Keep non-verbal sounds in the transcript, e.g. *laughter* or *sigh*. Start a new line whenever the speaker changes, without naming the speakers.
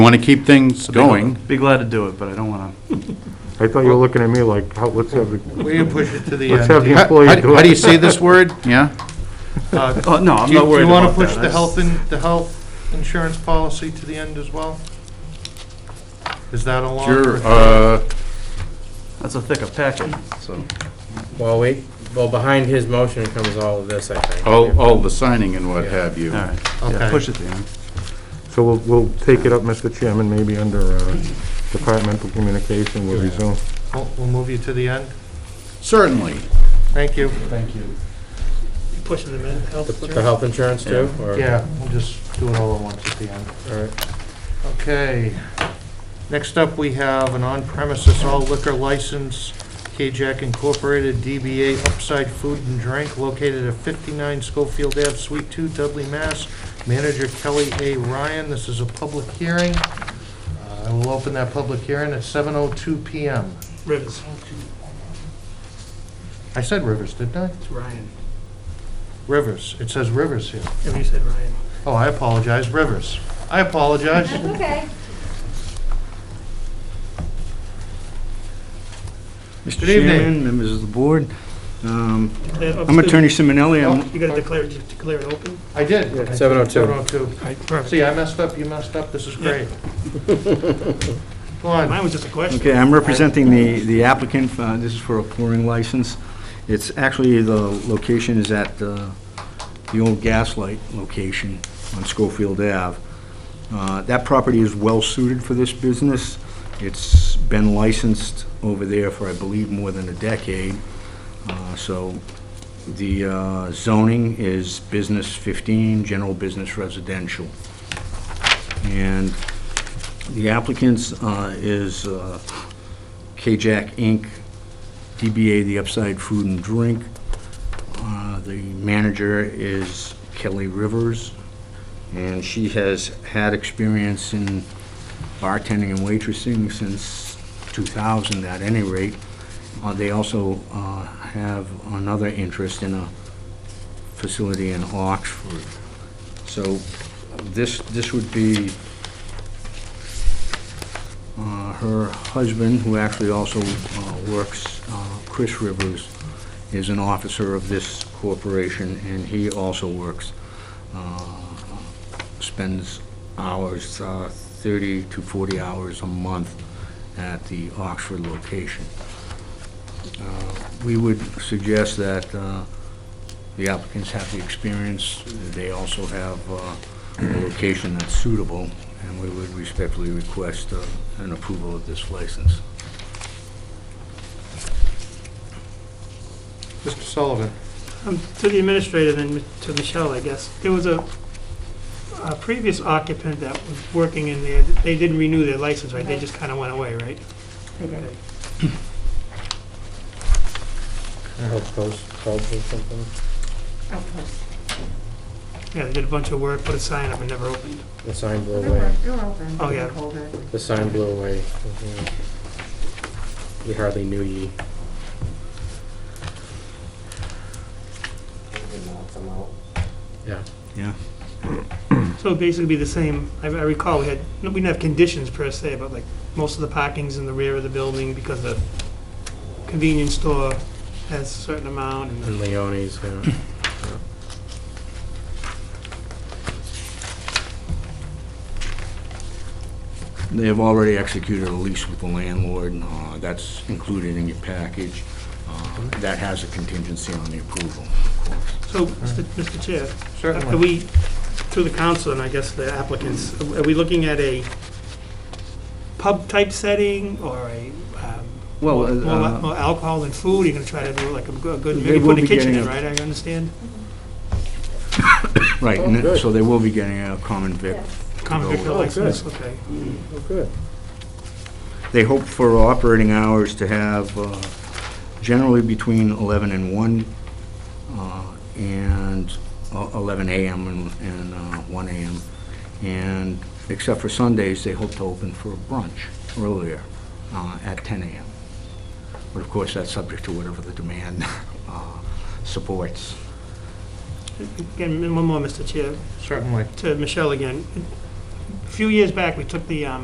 want to keep things going.
Be glad to do it, but I don't want to.
I thought you were looking at me like, how, let's have, the-
We didn't push it to the
let's have the
end.
employee
How
do
how do you
it.
say this word? Yeah?
Uh,
Oh, no, I'm
Do you,
not
do
worried
you want to
about
push
that.
the
I
health
just-
and, the health insurance policy to the end as well? Is that along?
Sure.
with-
uh,
That's a thicker packet, so.
Well, wait, well, behind his motion comes all of this, I think.
All, all the signing and what have you.
All right, yeah,
Okay.
push it, Dan.
So we'll, we'll take it up, Mr. Chairman, maybe under uh, departmental communication, we'll resume.
We'll, we'll move you to the end.
Certainly.
Thank you.
Thank you.
Pushing them in, health
With
insurance.
the health insurance too? or-
Yeah, we'll just do it all at once at the end.
All right.
Okay. Next up, we have an on-premises all liquor license, KJAC Incorporated, DBA Upside Food and Drink, located at 59 Schofield Ave, Suite 2, Dudley, Mass. Manager Kelly A. Ryan. This is a public hearing. Uh, I will open that public hearing at 7:02 PM.
Rivers.
I said Rivers, didn't I?
It's Ryan.
Rivers. It says Rivers here.
Yeah, you said Ryan.
Oh, I apologize, Rivers. I apologize.
That's okay.
Mr.
Good evening.
Chairman, members of the board, um,
Declare-
I'm Attorney Simonelli,
Oh,
I'm
You gotta declare, it- declare it open?
I did.
Yeah, 7:02.
7:02. See, I messed up, you messed up, this is great. Go
Mine *laughs*
on.
was just a question.
Okay, I'm representing the the applicant, uh, this is for a pouring license. It's actually, the location is at uh, the old Gaslight location on Schofield Ave. Uh, That property is well-suited for this business. It's been licensed over there for, I believe, more than a decade. Uh, So the uh, zoning is business 15, general business residential. And the applicant's uh, is uh, KJAC Inc., DBA The Upside Food and Drink. Uh, The manager is Kelly Rivers, and she has had experience in bartending and waitressing since 2000 at any rate. Uh, They also uh, have another interest in a facility in Oxford. So this, this would be uh, her husband, who actually also uh, works, uh, Chris Rivers, is an officer of this corporation, and he also works, uh, spends hours, uh, 30 to 40 hours a month at the Oxford location. Uh, We would suggest that uh, the applicants have the experience, they also have uh, a location that's suitable, and we would respectfully request uh, an approval of this license.
Mr. Sullivan,
Um, To the administrator, then to Michelle, I guess. There was a, a previous occupant that was working in there. They didn't renew their license, right? They just kinda went away, right? Okay.
Health post, health or something?
I'll post.
Yeah, they did a bunch of work, put a sign up and never opened.
The sign blew away.
It'll open.
Oh, yeah.
Hold it.
The sign blew away. We hardly knew ye. Yeah.
Yeah.
So it'd basically be the same, I I recall, we had, we didn't have conditions per se, but like, most of the parking's in the rear of the building because the convenience store has a certain amount, and the-
And Leonie's, yeah.
They have already executed a lease with the landlord, and uh, that's included in your package. Uh, That has a contingency on the approval, of course.
so, Mr.
Mm-hmm.
Mr. Chair, are
certainly.
we, through the council and I guess the applicants, are we looking at a pub-type setting, or a, um,
Well,
more
uh,
more alcohol and food, you're gonna try to do like a go- good,
They
maybe
will
put a
be
kitchen in,
getting a-
right, I understand?
Right, and it- so they will be getting a common vic.
Yes.
Common
No.
victor
Oh, good.
license, okay.
Oh, good.
They hope for operating hours to have uh, generally between 11 and 1, uh, and uh, 11 a.m. and- and uh, 1 a.m. And except for Sundays, they hope to open for brunch earlier uh, at 10 a.m. But of course, that's subject to whatever the demand *laughs* uh, supports.
Again, one more, Mr. Chair.
Certainly.
to Michelle again. few years back, we took the, um,